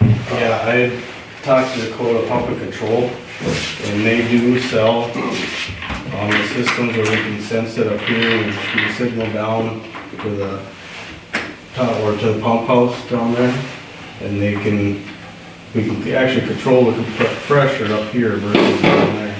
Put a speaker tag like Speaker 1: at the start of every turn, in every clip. Speaker 1: Yeah, I talked to Dakota Pump and Control, and they do sell, um, the systems where we can sense it up here and shoot a signal down to the, top or to the pump house down there, and they can, we can actually control the comp- pressure up here versus down there.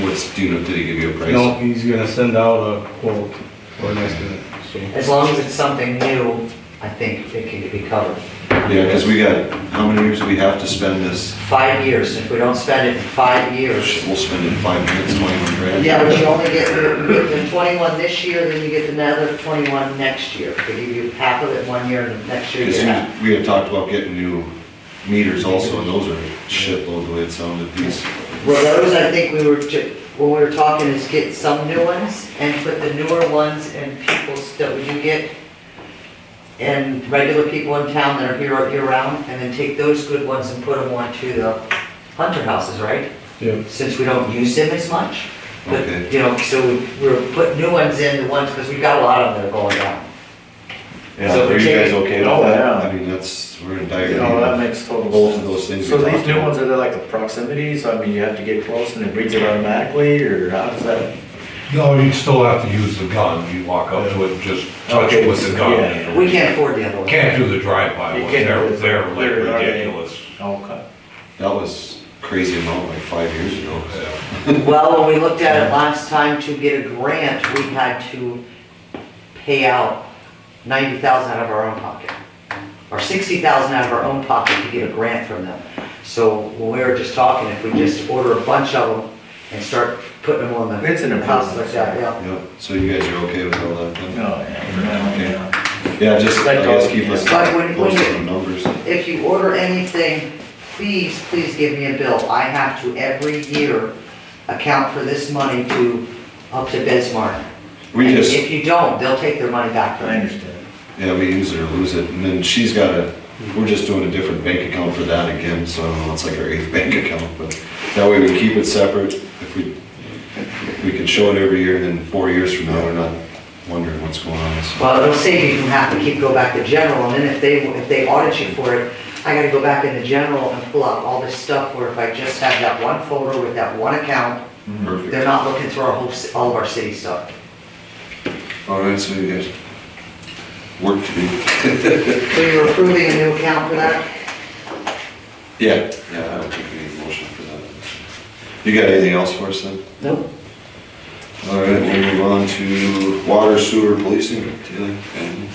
Speaker 2: What's, do you know, did he give you a price?
Speaker 1: No, he's gonna send out a quote or an estimate, so.
Speaker 3: As long as it's something new, I think it can be covered.
Speaker 2: Yeah, because we got, how many years do we have to spend this?
Speaker 3: Five years, if we don't spend it in five years.
Speaker 2: We'll spend it in five minutes, twenty-one grand.
Speaker 3: Yeah, but you only get, you get the twenty-one this year, then you get another twenty-one next year. They give you half of it one year and next year you
Speaker 2: Because
Speaker 3: get half.
Speaker 2: we we had talked about getting new meters also, and those are shitload the way it sounded, these.
Speaker 3: Well, those, I think we were, ju- what we were talking is get some new ones and put the newer ones in people's, that you get, and regular people in town that are here all year round, and then take those good ones and put them on to the hunter houses, right?
Speaker 1: Yeah,
Speaker 3: Since we don't use them as much. But,
Speaker 2: Okay.
Speaker 3: you know, so we're putting new ones in, the ones, because we've got a lot of them that are going down.
Speaker 2: Yeah,
Speaker 3: So
Speaker 2: are you guys
Speaker 3: take-
Speaker 2: okay with
Speaker 4: Oh,
Speaker 2: that?
Speaker 4: yeah.
Speaker 2: I mean, that's, we're in dire
Speaker 4: You know, Oh, that
Speaker 2: need.
Speaker 4: makes total
Speaker 2: Both of
Speaker 4: sense.
Speaker 2: those things we
Speaker 4: So these
Speaker 2: talked
Speaker 4: new
Speaker 2: about.
Speaker 4: ones, are they like the proximity, so I mean, you have to get close and it reads it automatically, or how does that?
Speaker 5: No, you still have to use the gun, you walk up to it, and just touch it with the gun.
Speaker 3: We can't afford the other one.
Speaker 5: Can't do the drive-by,
Speaker 4: You
Speaker 5: ones.
Speaker 4: can't do
Speaker 5: they're,
Speaker 4: the-
Speaker 5: they're like
Speaker 4: they're already-
Speaker 5: ridiculous.
Speaker 4: Okay.
Speaker 2: That was crazy amount like five years ago.
Speaker 5: Yeah.
Speaker 3: Well, when we looked at it last time to get a grant, we had to pay out ninety thousand out of our own pocket. Or sixty thousand out of our own pocket to get a grant from them. So when we were just talking, if we just order a bunch of them and start putting them on the.
Speaker 4: It's an
Speaker 3: the houses like that, yeah.
Speaker 2: Yeah, so you guys are okay with all that
Speaker 4: Oh,
Speaker 2: then?
Speaker 4: yeah.
Speaker 2: Okay.
Speaker 4: Yeah.
Speaker 2: Yeah, just, I
Speaker 4: Like,
Speaker 2: guess
Speaker 4: uh,
Speaker 2: keep us
Speaker 3: Like, when- when
Speaker 2: posted
Speaker 3: you-
Speaker 2: on numbers.
Speaker 3: If you order anything, please, please give me a bill. I have to every year account for this money to, up to Bismarck.
Speaker 2: We
Speaker 3: And
Speaker 2: just,
Speaker 3: If you don't, they'll take their money back from
Speaker 4: I
Speaker 3: you.
Speaker 4: understand.
Speaker 2: Yeah, we use it or lose it, and then she's got a, we're just doing a different bank account for that again, so I don't know, it's like our eighth bank account, but that way we keep it separate, if we, if we can show it every year, and then four years from now, we're not wondering what's going on, so.
Speaker 3: Well, it'll save you from having to keep, go back to general, and then if they, if they audit you for it, I gotta go back into general and pull out all this stuff, where if I just have that one folder with that one account,
Speaker 2: Perfect.
Speaker 3: they're not looking through our whole, ci- all of our city stuff.
Speaker 2: All right, so you guys, work to do.
Speaker 3: So you're approving a new account for that?
Speaker 2: Yeah, yeah, I don't think we need a motion for that. You got anything else for us then?
Speaker 3: Nope.
Speaker 2: All right, we'll move on to water sewer policing, Taylor, and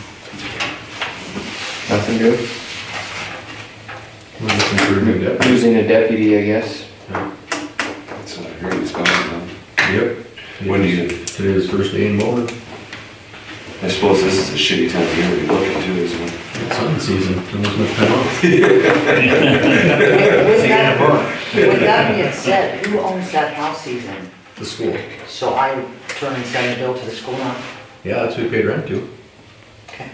Speaker 6: Nothing good?
Speaker 7: We're looking for a new deputy.
Speaker 6: Losing a deputy, I guess.
Speaker 2: that's what I heard was going on.
Speaker 7: Yep.
Speaker 2: When do you?
Speaker 7: Today is first day in Bowman.
Speaker 2: I suppose this is a shitty time of year to be looking to, isn't it?
Speaker 7: It's hunting season. and there's no time off.
Speaker 3: With that, with that being said, who owns that house he's in?
Speaker 7: The school.
Speaker 3: So I turn and send a bill to the school now?
Speaker 7: Yeah, that's who we paid rent to.
Speaker 3: Okay.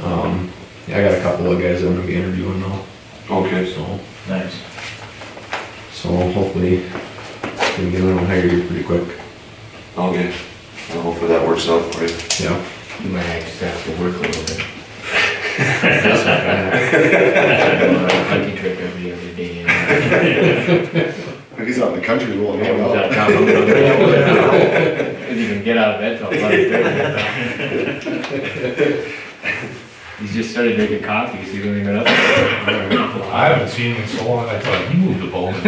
Speaker 7: Um, yeah, I got a couple of guys I'm gonna be interviewing now,
Speaker 2: Okay.
Speaker 7: so,
Speaker 4: Nice.
Speaker 7: so hopefully we can get a little higher here pretty quick.
Speaker 2: Okay. Well, hopefully that works out for you.
Speaker 7: Yeah.
Speaker 6: You might just have to work a little bit.
Speaker 8: Hiking trip every other day. you know.
Speaker 2: He's out in the country rolling
Speaker 8: Yeah, we got
Speaker 2: around.
Speaker 8: down, down, down, down. Couldn't even get out of bed till eleven thirty. He's just started drinking coffee, so he wasn't even up.
Speaker 5: I haven't seen him in so long, I thought he moved to Bowman.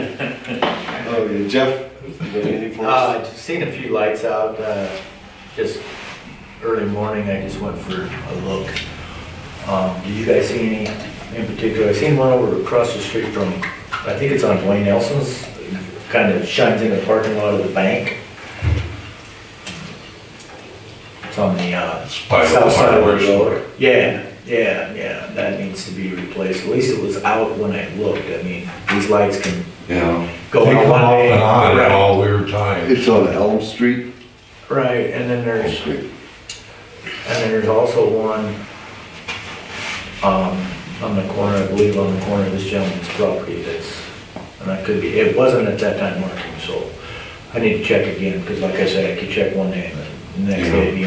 Speaker 2: Oh, yeah. Jeff, you got anything for us?
Speaker 4: Uh, I've seen a few lights out, uh, just early morning, I just went for a look. Um, do you guys see any in particular? I seen one over across the street from, I think it's on Wayne Nelson's, kind of shines in the parking lot of the bank. It's on the, uh,
Speaker 5: By the
Speaker 4: south side of the
Speaker 5: fireworks.
Speaker 4: road. Yeah, yeah, yeah, that needs to be replaced. At least it was out when I looked. I mean, these lights can
Speaker 2: Yeah.
Speaker 4: go
Speaker 5: They
Speaker 4: out
Speaker 5: come
Speaker 4: one
Speaker 5: off
Speaker 4: way.
Speaker 5: and on at
Speaker 4: Right.
Speaker 5: all weird times.
Speaker 2: on Elm Street.
Speaker 4: Right, and then there's, and
Speaker 2: Street.
Speaker 4: then there's also one, um, on the corner, I believe on the corner of this gentleman's property that's, and that could be, it wasn't at that time working, so I need to check again, because like I said, I could check one day and the next day it'd be